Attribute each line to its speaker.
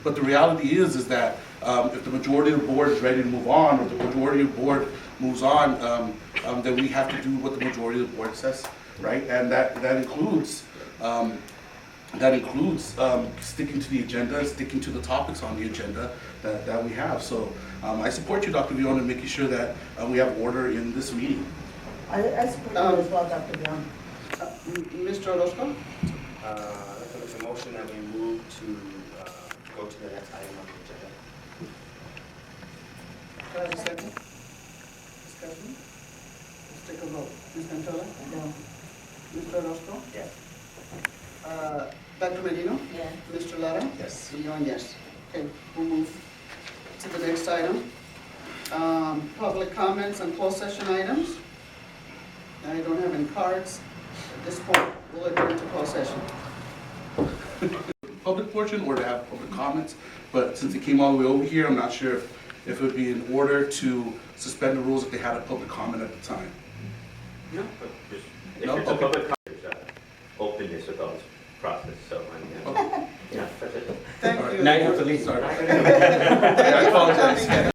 Speaker 1: But the reality is, is that um, if the majority of the board is ready to move on, or the majority of the board moves on, um, um, then we have to do what the majority of the board says, right? And that, that includes, um, that includes um, sticking to the agenda, sticking to the topics on the agenda that, that we have. So um, I support you, Dr. Vion, in making sure that uh, we have order in this meeting.
Speaker 2: I, I support you as well, Dr. Brown.
Speaker 3: Uh,
Speaker 4: Mr. Orozco? Uh, I'd like to make a motion that we move to, uh, go to the next item on the agenda.
Speaker 3: Can I have a second? Discussion? Let's take a vote. Ms. Cantola?
Speaker 2: No.
Speaker 3: Mr. Orozco?
Speaker 4: Yes.
Speaker 3: Uh, Dr. Merino?
Speaker 2: Yeah.
Speaker 3: Mr. Lara?
Speaker 4: Yes.
Speaker 3: Leon, yes. Okay, we'll move to the next item. Um, Public comments and closed session items. I don't have any cards. At this point, we'll adjourn to closed session.
Speaker 1: public portion or to have public comments. But since it came all the way over here, I'm not sure if, if it would be in order to suspend the rules if they had a public comment at the time.
Speaker 3: No?
Speaker 5: But just-
Speaker 1: No?
Speaker 5: If it's a
Speaker 1: Okay.
Speaker 5: public conference, uh, openness about this process, so, I mean,
Speaker 1: Okay.
Speaker 5: yeah, that's it.
Speaker 3: Thank
Speaker 1: All right.
Speaker 3: you.
Speaker 1: Sorry.
Speaker 3: Thank you
Speaker 1: I
Speaker 3: for
Speaker 1: apologize.
Speaker 3: coming.